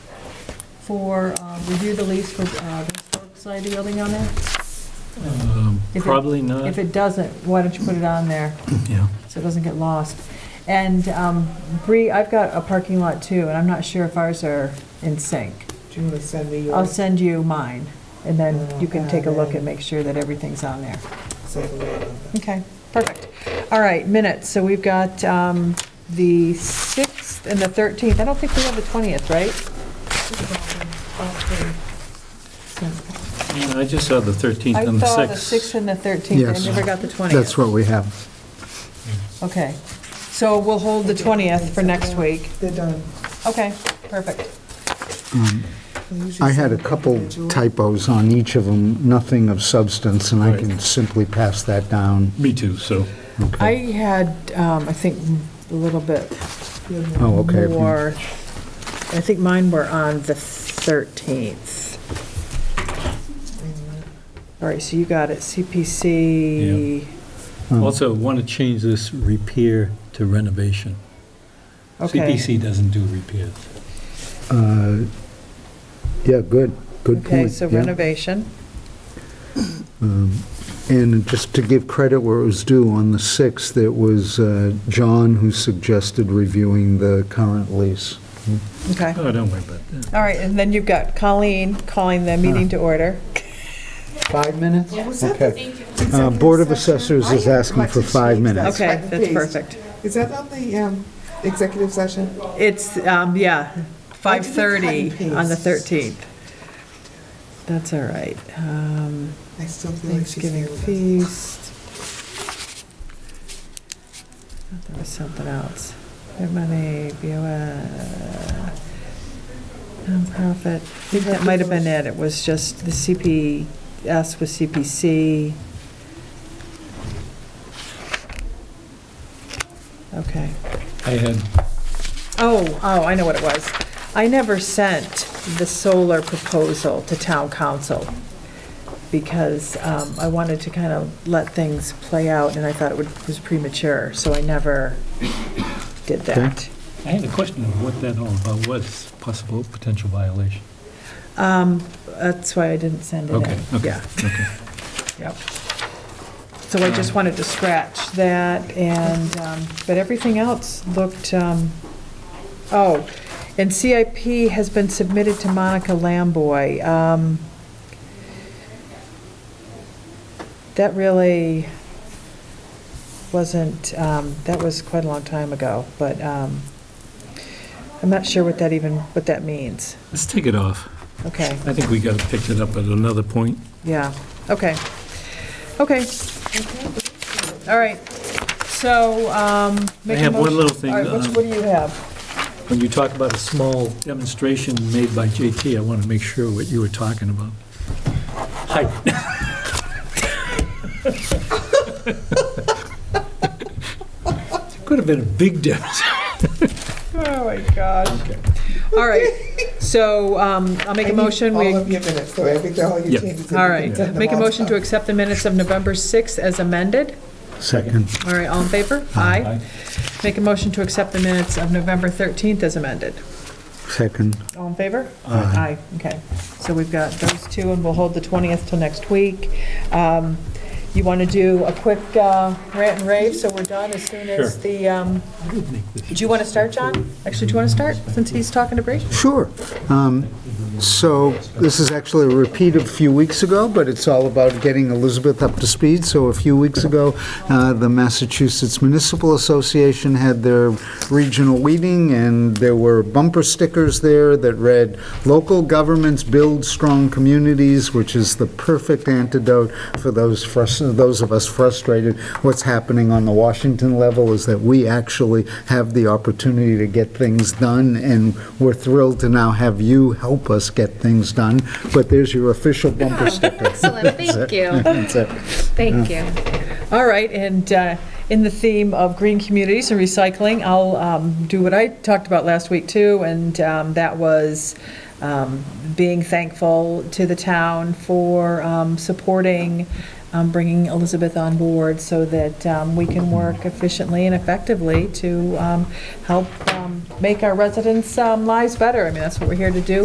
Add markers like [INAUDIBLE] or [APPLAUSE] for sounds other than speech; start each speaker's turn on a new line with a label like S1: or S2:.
S1: for, uh, review the lease for uh, the Historic Society building on there?
S2: Um,
S1: If it-
S2: Probably not,
S1: If it doesn't, why don't you put it on there,
S2: yeah.
S1: so it doesn't get lost? And um, Bree, I've got a parking lot too, and I'm not sure if ours are in sync.
S3: Do you want to send me
S1: I'll
S3: yours?
S1: send you mine, and then you can take a look and make sure that everything's on there.
S3: So, uh,
S1: Okay, perfect. All right, minutes, so we've got um, the 6th and the 13th. I don't think we have the 20th, right? So-
S2: Yeah, I just saw the 13th
S1: I
S2: and the
S1: saw the 6th
S2: 6th.
S1: and the 13th, I
S4: Yes.
S1: never got the 20th.
S4: That's what we have.
S1: Okay, so we'll hold the 20th for next week.
S3: They're done.
S1: Okay, perfect.
S4: I had a couple typos on each of them, nothing of substance, and I
S2: Right.
S4: can simply pass that down.
S2: Me too, so,
S1: I
S4: Okay.
S1: had, um, I think, a little bit
S4: Oh, okay. if you-
S1: more, I think mine were on the 13th. All right, so you got it, CPC,
S2: also want to change this repair to renovation.
S1: okay.
S2: CPC doesn't do repairs.
S4: uh, Yeah, good, good point.
S1: Okay, so
S4: yeah. Um,
S1: renovation,
S4: And just to give credit where it was due, on the 6th, it was uh, John who suggested reviewing the current lease.
S1: okay.
S2: Oh, don't worry about that.
S1: All right, and then you've got Colleen calling the meeting to
S4: Uh-huh.
S1: order.
S4: Five minutes?
S3: What was that?
S4: Okay.
S5: Thank you.
S4: Uh,
S3: Executive
S4: Board of
S3: session?
S4: Assessors
S3: I
S4: is
S3: am
S4: asking for
S3: going to
S4: five
S3: change that.
S4: minutes.
S1: Okay,
S3: Cut and
S1: that's
S3: paste.
S1: perfect.
S3: Is that on the um, executive session?
S1: It's, um, yeah,
S3: I did the cut and
S1: 5:30 on the
S3: paste.
S1: 13th. That's all right. Um,
S3: I still feel like she's
S1: Thanksgiving
S3: here with us.
S1: feast. Thought There was something else. Their money, BOS, nonprofit. I think that might have been it. It was just the CPS with CPC. Okay.
S2: I had,
S1: Oh, oh, I know what it was. I never sent the solar proposal to town council because um, I wanted to kind of let things play out and I thought it would- was premature, so I never did that.
S2: I had a question of what that all about was, possible potential violation.
S1: Um, That's why I didn't send it in.
S2: Okay, okay,
S1: Yeah. Yep. So I just wanted to scratch that and, um, but everything else looked, um, oh, and CIP has been submitted to Monica Lamboy. Um, That really wasn't, um, that was quite a long time ago, but um, I'm not sure what that even, what that means.
S2: Let's take it off.
S1: Okay.
S2: I think we got to pick it up at another point.
S1: Yeah, okay, okay. All right, so, um, make a
S2: have one
S1: motion-
S2: little thing,
S1: All right, what's-
S2: um,
S1: what do you have?
S2: When you talk about a small demonstration made by JT, I want to make sure what you were talking about. Hi. [LAUGHS] Could have been a big demonstration.
S1: Oh, my God. All right, so, um, I'll make
S3: I
S1: a
S3: need
S1: motion, we,
S3: All of your minutes, so I think all your
S2: Yep.
S3: changes.
S1: all right, make a motion to accept the minutes of November 6th as amended.
S4: Second.
S1: All right, all in favor? Aye. Make a motion to accept the minutes of November 13th as amended.
S4: Second.
S1: All in favor?
S4: Aye.
S1: okay. So we've got those two, and we'll hold the 20th till next week. Um, You want to do a quick uh, rant and rave, so we're done as soon as
S2: Sure.
S1: the, um, do you want to start, John? Actually, do you want to start, since he's talking to Bree?
S4: Sure. Um, So this is actually a repeat of a few weeks ago, but it's all about getting Elizabeth up to speed. So a few weeks ago, uh, the Massachusetts Municipal Association had their regional meeting, and there were bumper stickers there that read, "Local governments build strong communities," which is the perfect antidote for those frus- those of us frustrated. What's happening on the Washington level is that we actually have the opportunity to get things done, and we're thrilled to now have you help us get things done. But there's your official bumper sticker.
S5: Excellent,
S4: [LAUGHS]
S5: thank you,
S4: That's it.
S5: thank you.
S1: All right, and uh, in the theme of green communities and recycling, I'll um, do what I talked about last week too, and um, that was um, being thankful to the town for um, supporting, um, bringing Elizabeth on board so that um, we can work efficiently and effectively to um, help um, make our residents' um, lives better. I mean, that's what we're here to do,